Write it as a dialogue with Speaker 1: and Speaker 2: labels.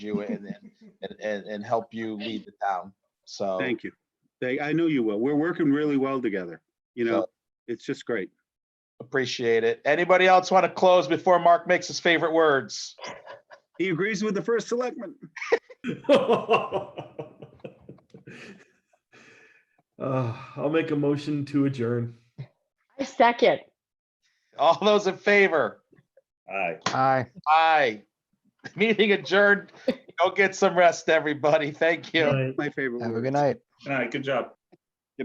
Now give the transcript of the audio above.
Speaker 1: you and, and, and, and help you lead the town. So.
Speaker 2: Thank you. They, I know you will. We're working really well together. You know,
Speaker 1: So-
Speaker 2: it's just great.
Speaker 1: Appreciate it. Anybody else want to close before Mark makes his favorite words?
Speaker 2: He agrees with the first selectman.
Speaker 3: Uh, I'll make a motion to adjourn.
Speaker 4: I second.
Speaker 1: All those in favor?
Speaker 3: Aye.
Speaker 5: Aye.
Speaker 1: Aye. Meeting adjourned. Go get some rest, everybody. Thank you.
Speaker 3: Aye,
Speaker 2: My favorite.
Speaker 5: Have a
Speaker 2: word.
Speaker 5: good night.
Speaker 3: good job.